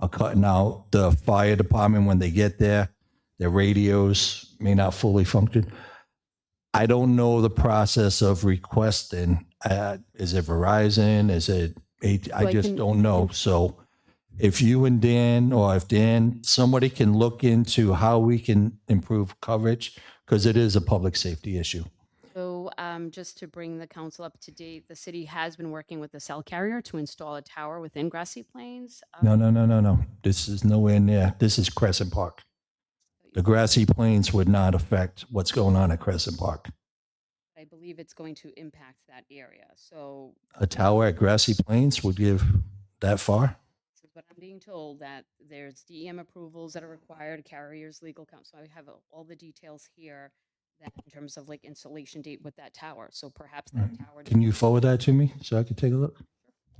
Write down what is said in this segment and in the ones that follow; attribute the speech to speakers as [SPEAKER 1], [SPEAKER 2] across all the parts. [SPEAKER 1] are cutting out the fire department when they get there. Their radios may not fully function. I don't know the process of requesting. Uh, is it Verizon? Is it? AT- I
[SPEAKER 2] Well, I
[SPEAKER 1] just
[SPEAKER 2] can-
[SPEAKER 1] don't know. So, if you and Dan, or if Dan, somebody can look into how we can improve coverage because it is a public safety issue.
[SPEAKER 2] So um, just to bring the council up to date, the city has been working with the cell carrier to install a tower within grassy plains. um,
[SPEAKER 1] No, no, no, no, no. This is nowhere near. This is Crescent Park. The grassy plains would not affect what's going on at Crescent Park.
[SPEAKER 2] I believe it's going to impact that area. So
[SPEAKER 1] A tower at Grassy Plains would give that far?
[SPEAKER 2] this is what I'm being told, that there's DEM approvals that are required, carriers, legal counsel. I have all the details here that in terms of like installation date with that tower. So perhaps that tower.
[SPEAKER 1] Can you forward that to me so I could take a look?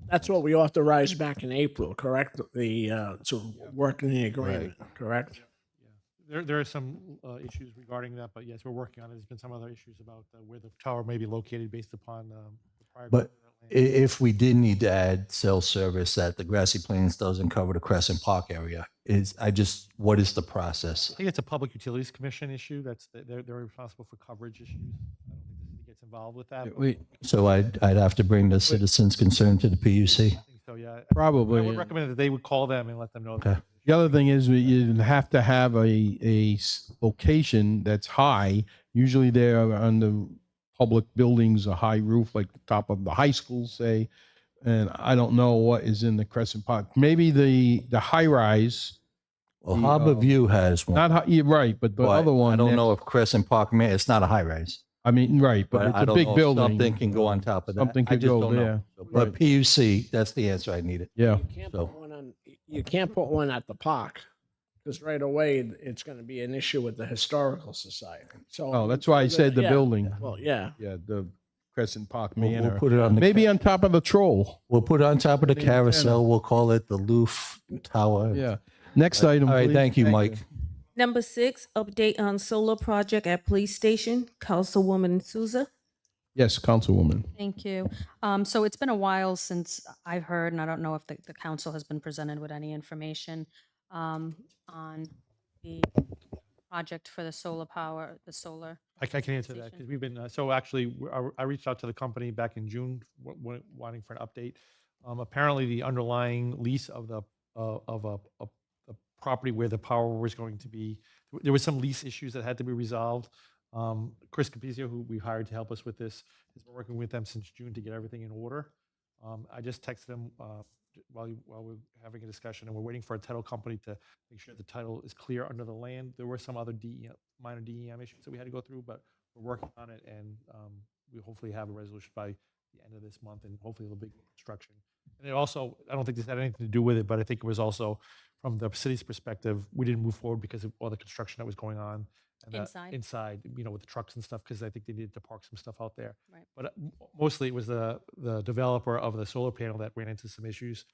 [SPEAKER 3] That's what we authorized back in April, correct? The, uh, to work in the agreement, correct?
[SPEAKER 4] There, there are some uh, issues regarding that, but yes, we're working on it. There's been some other issues about uh, where the tower may be located based upon um, the prior.
[SPEAKER 1] But
[SPEAKER 4] government
[SPEAKER 1] I-
[SPEAKER 4] land.
[SPEAKER 1] if we did need to add cell service that the Grassy Plains doesn't cover the Crescent Park area, is I just, what is the process?
[SPEAKER 4] I think it's a Public Utilities Commission issue. That's, th- they're, they're responsible for coverage issues. I don't think the city gets involved with that. but
[SPEAKER 5] We
[SPEAKER 1] So I'd, I'd have to bring the citizens' concern to the PUC.
[SPEAKER 4] I think So, yeah. I
[SPEAKER 5] probably.
[SPEAKER 4] would recommend that they would call them and let them know.
[SPEAKER 1] Okay.
[SPEAKER 4] that-
[SPEAKER 5] The other thing is we you have to have a, a s- location that's high. Usually they're on the public buildings, a high roof, like the top of the high school, say. And I don't know what is in the Crescent Park. Maybe the, the high rise,
[SPEAKER 1] Well,
[SPEAKER 5] The,
[SPEAKER 1] Harbor
[SPEAKER 5] uh,
[SPEAKER 1] View has one.
[SPEAKER 5] not, hi- you're right, but the
[SPEAKER 1] but
[SPEAKER 5] other one.
[SPEAKER 1] I don't
[SPEAKER 5] next-
[SPEAKER 1] know if Crescent Park, may. it's not a high rise.
[SPEAKER 5] I mean, right, but
[SPEAKER 1] I
[SPEAKER 5] it's
[SPEAKER 1] don't
[SPEAKER 5] a
[SPEAKER 1] know
[SPEAKER 5] big
[SPEAKER 1] if
[SPEAKER 5] building.
[SPEAKER 1] Something can go on top of that.
[SPEAKER 5] Something
[SPEAKER 1] I
[SPEAKER 5] could
[SPEAKER 1] just
[SPEAKER 5] go
[SPEAKER 1] don't know.
[SPEAKER 5] there.
[SPEAKER 1] But
[SPEAKER 5] Right.
[SPEAKER 1] PUC, that's the answer I needed.
[SPEAKER 5] Yeah.
[SPEAKER 3] You can't
[SPEAKER 1] So-
[SPEAKER 3] put one on, you can't put one at the park, because right away, it's gonna be an issue with the historical society, so.
[SPEAKER 5] Oh, that's why I said the
[SPEAKER 3] Yeah.
[SPEAKER 5] building.
[SPEAKER 3] Well, yeah,
[SPEAKER 5] Yeah, the Crescent Park
[SPEAKER 1] We'll, we'll
[SPEAKER 5] Manor.
[SPEAKER 1] put it on the
[SPEAKER 5] Maybe on top of the troll.
[SPEAKER 1] we'll put it on top of the
[SPEAKER 5] Put it in the
[SPEAKER 1] carousel. We'll call it the Loof Tower.
[SPEAKER 5] Yeah. Next item.
[SPEAKER 1] All right,
[SPEAKER 5] please.
[SPEAKER 1] thank you, Mike.
[SPEAKER 6] Number six, update on solar project at police station, Councilwoman Souza.
[SPEAKER 5] Yes, Councilwoman.
[SPEAKER 7] Thank you. Um, So it's been a while since I've heard, and I don't know if the, the council has been presented with any information um, on the project for the solar power, the solar.
[SPEAKER 4] I I can answer that because
[SPEAKER 7] Station.
[SPEAKER 4] we've been, uh, so actually, w- I- I reached out to the company back in June wa- wa- wanting for an update. Um, Apparently, the underlying lease of the, uh, of a, a- a property where the power was going to be, w- there was some lease issues that had to be resolved. Um, Chris Capizio, who we hired to help us with this, has been working with them since June to get everything in order. Um, I just texted them uh, j- while, you- while we're having a discussion, and we're waiting for a title company to make sure the title is clear under the land. There were some other E DEM, minor DEM issues that we had to go through, but we're working on it, and um, we hopefully have a resolution by the end of this month, and hopefully it'll be construction. And it also, I don't think this had anything to do with it, but I think it was also, from the city's perspective, we didn't move forward because of all the construction that was going on. and that-
[SPEAKER 7] Inside.
[SPEAKER 4] Inside, you know, with the trucks and stuff, because I think they needed to park some stuff out there.
[SPEAKER 7] Right.
[SPEAKER 4] But uh, m- mostly it was the, the developer of the solar panel that ran into some issues.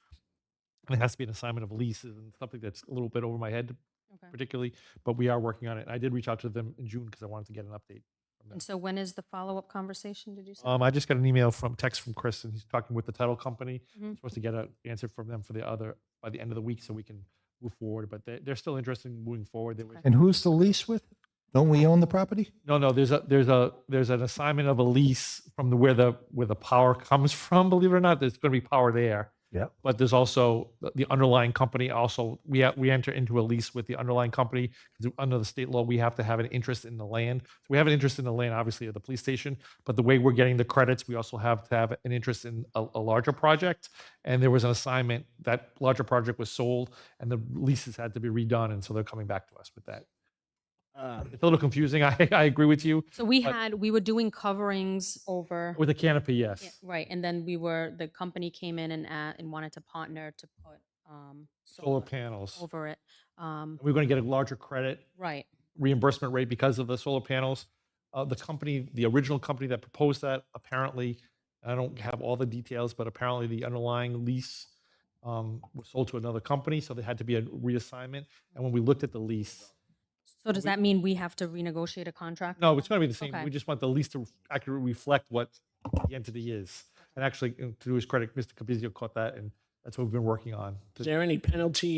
[SPEAKER 4] And it has to be an assignment of leases and something that's a little bit over my head
[SPEAKER 7] Okay.
[SPEAKER 4] particularly, but we are working on it. I did reach out to them in June because I wanted to get an update. from them.
[SPEAKER 7] And so when is the follow-up conversation, did you say?
[SPEAKER 4] Um, I just got an email from text from Chris and he's talking with the title company.
[SPEAKER 7] Mhm.
[SPEAKER 4] Supposed to get an answer from them for the other, by the end of the week so we can move forward, but they, they're still interested in moving forward. There was-
[SPEAKER 1] And who's the lease with? Don't we own the property?
[SPEAKER 4] No, no, there's a, there's a, there's an assignment of a lease from the, where the, where the power comes from, believe it or not, there's gonna be power there.
[SPEAKER 1] Yep.
[SPEAKER 4] But there's also the- the underlying company also, we, ha- we enter into a lease with the underlying company. 'cause Under the state law, we have to have an interest in the land. So we have an interest in the land, obviously, at the police station. But the way we're getting the credits, we also have to have an interest in a, a larger project. And there was an assignment, that larger project was sold and the leases had to be redone. And so they're coming back to us with that.
[SPEAKER 3] uh,
[SPEAKER 4] It's a little confusing. I, I agree with you.
[SPEAKER 7] So we
[SPEAKER 4] but-
[SPEAKER 7] had, we were doing coverings over.
[SPEAKER 4] With a canopy,
[SPEAKER 7] Yeah,
[SPEAKER 4] yes.
[SPEAKER 7] Right, and then we were, the company came in and, a- and wanted to partner to put um,
[SPEAKER 4] Solar panels.
[SPEAKER 7] over it. Um,
[SPEAKER 4] We're going to get a larger credit
[SPEAKER 7] Right,
[SPEAKER 4] reimbursement rate because of the solar panels. Uh, the company, the original company that proposed that, apparently, I don't have all the details, but apparently the underlying lease um, was sold to another company, so there had to be a reassignment. And when we looked at the lease,
[SPEAKER 7] so does
[SPEAKER 4] we-
[SPEAKER 7] that mean we have to renegotiate a contract?
[SPEAKER 4] no, it's going to be the same.
[SPEAKER 7] Okay.
[SPEAKER 4] We just want the lease to accurately reflect what the entity is. uh, And actually, you know, to his credit, Mr. Capizio caught that, and that's what we've been working on. to-
[SPEAKER 3] is there any penalty